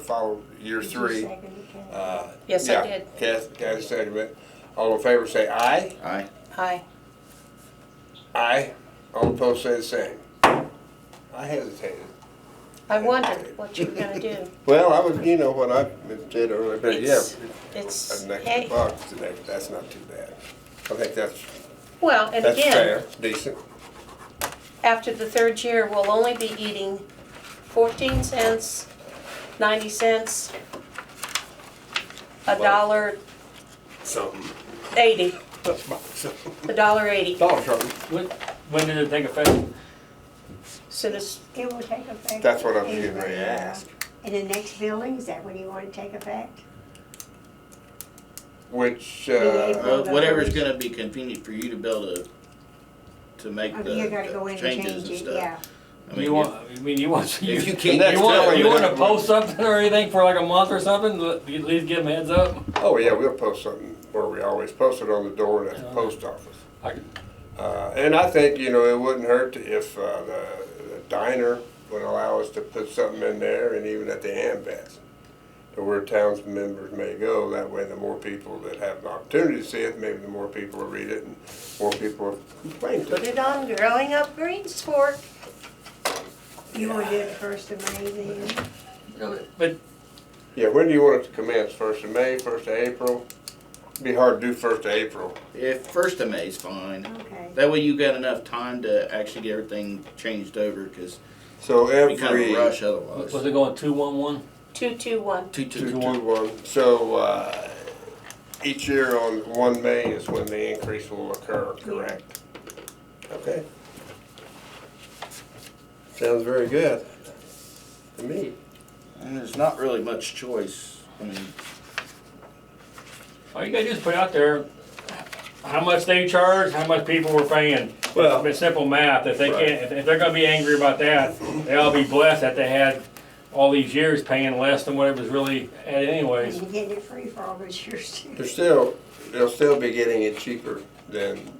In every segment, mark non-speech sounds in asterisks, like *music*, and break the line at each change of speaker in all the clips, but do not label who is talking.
follow year three. Uh,
Yes, I
yeah,
did.
Kath, Kath seconded it. All in favor, say aye.
Aye.
Aye.
Aye. All opposed, say the same. I hesitated.
I wondered what you were gonna do.
*laughs* Well, I was, you know, what I did earlier, but yeah,
It's- It's,
an extra
hey,
buck today, that's not too bad. I think that's,
well, and
that's
again,
fair, decent.
after the third year, we'll only be eating fourteen cents, ninety cents, a
Well-
dollar
Something.
eighty,
Something.
a dollar eighty.
Dollar something.
When, when did it take effect?
Soon as,
It will take effect.
That's what I'm getting ready to
in, uh,
ask.
In the next building, is that when you want to take effect?
Which,
Yeah.
uh,
Well, whatever's gonna be convenient for you to be able to, to make
Oh,
the
you gotta go in
the
and
changes
change
and
it,
stuff.
yeah.
I mean,
You want, I mean, you want, you,
If you
you
can't,
That's
want,
telling
you wanna
that-
post something or anything for like a month or something, Let- at least give them heads up?
oh yeah, we'll post something where we always post it on the door and at the post office.
I-
Uh, and I think, you know, it wouldn't hurt if, uh, the the diner would allow us to put something in there and even at the ambets. To where towns members may go, that way the more people that have an opportunity to see it, maybe the more people will read it and more people will complain to
put
it.
it on Growing Up Greensport.
You want to do it first of May then?
But
Yeah, when do you want it to commence? First of May, first of April? Be hard to do first of April.
if first of May's fine,
Okay.
that way you got enough time to actually get everything changed over, cause
So
it'd be kind of
every
a rush
was
otherwise.
it going two one one?
Two, two, one.
Two,
two,
two,
two,
two.
one. So, uh, each year on one May is when the increase will occur, correct? Okay. Sounds very good to me.
And there's not really much choice, I mean,
All you gotta do is put out there how much they charge, how much people were paying.
Well-
It's simple math, if they
Right.
can't, if- if they're gonna be angry about that, they ought to be blessed that they had all these years paying less than what it was really at
And
anyways.
you're getting it free for all those years too.
They're still, they'll still be getting it cheaper than,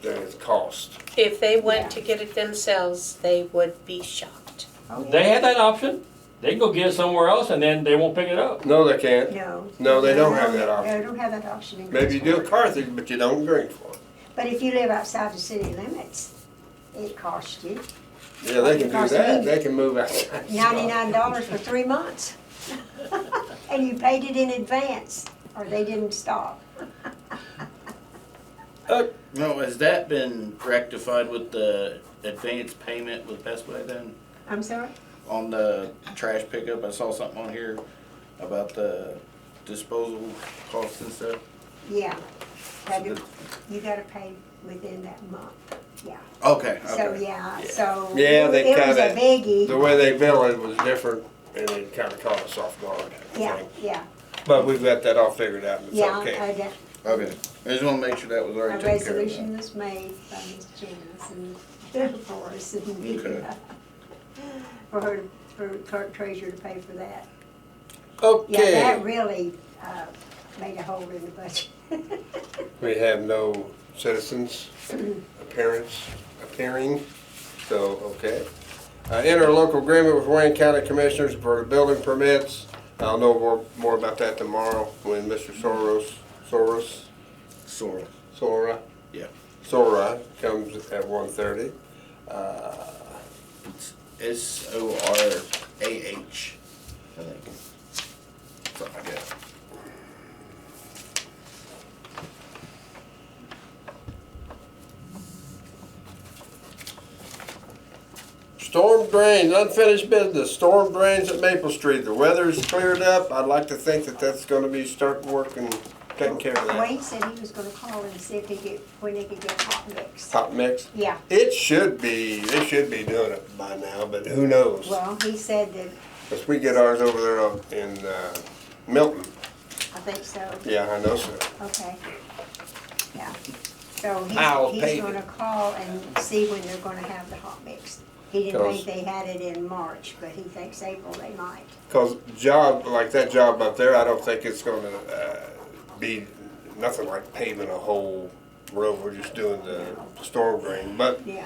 than its cost.
If they went to get it themselves, they would be shocked.
Oh,
They
yeah.
have that option, they can go get it somewhere else and then they won't pick it up.
No, they can't.
No.
No, they don't have that
No,
option.
They don't have that option. in
Maybe you do
Greensport.
at Carthage, but you don't drink for it.
But if you live outside the city limits, it costs you
Yeah, they can do that. They can move outside.
ninety-nine dollars for three months. *laughs* And you paid it in advance, or they didn't stop.
no, has that been rectified with the advance payment with Best Buy then?
I'm sorry?
On the trash pickup, I saw something on here about the disposal costs and stuff.
Yeah. Had
So
to- You gotta pay within that month, yeah.
Okay,
So,
okay.
yeah, so.
Yeah, they
It was a
kinda- The
biggie,
way they bill it was different and it kind of caught us off guard. I
yeah,
think.
yeah,
But we've got that all figured out, and it's
yeah.
okay.
a de-
Okay, I just wanna make sure that was
A
already taken care of.
resolution was made by Ms. Janice and *laughs* for us and
Okay.
*laughs* for her, for clerk treasurer to pay for that. Yeah, that
Okay,
really uh, made a hole in the budget.
we have no
*clears throat*
citizens appearance, appearing, so, okay. Uh, interlocal agreement with Wayne County Commissioners for the building permits. I'll know more, more about that tomorrow when Mr. Soros, Soros,
Sorrel.
Sora,
Yeah.
Sora comes at one thirty. Uh,
S O R A H. I think. Something like that.
Storm drains, unfinished business, storm drains at Maple Street. The weather's cleared up. I'd like to think that that's gonna be start working, taking care of that.
Wayne said he was gonna call and see if he could, when they could get hot mix.
Hot mix.
Yeah,
It should be, they should be doing it by now, but who knows?
well, he said that,
Cause we get ours over there up in, uh, Milton.
I think so,
Yeah, I know, sir.
okay. Yeah, so
I'll
he's,
pay
he's gonna call and see when they're gonna have the hot mix. He didn't
Because-
think they had it in March, but he thinks April they might.
Cause job, like that job up there, I don't think it's gonna, uh, be nothing like paving a whole road. We're just doing the storm drain, but
Yeah,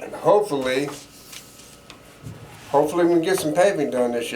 And hopefully, hopefully we can get some paving done this year.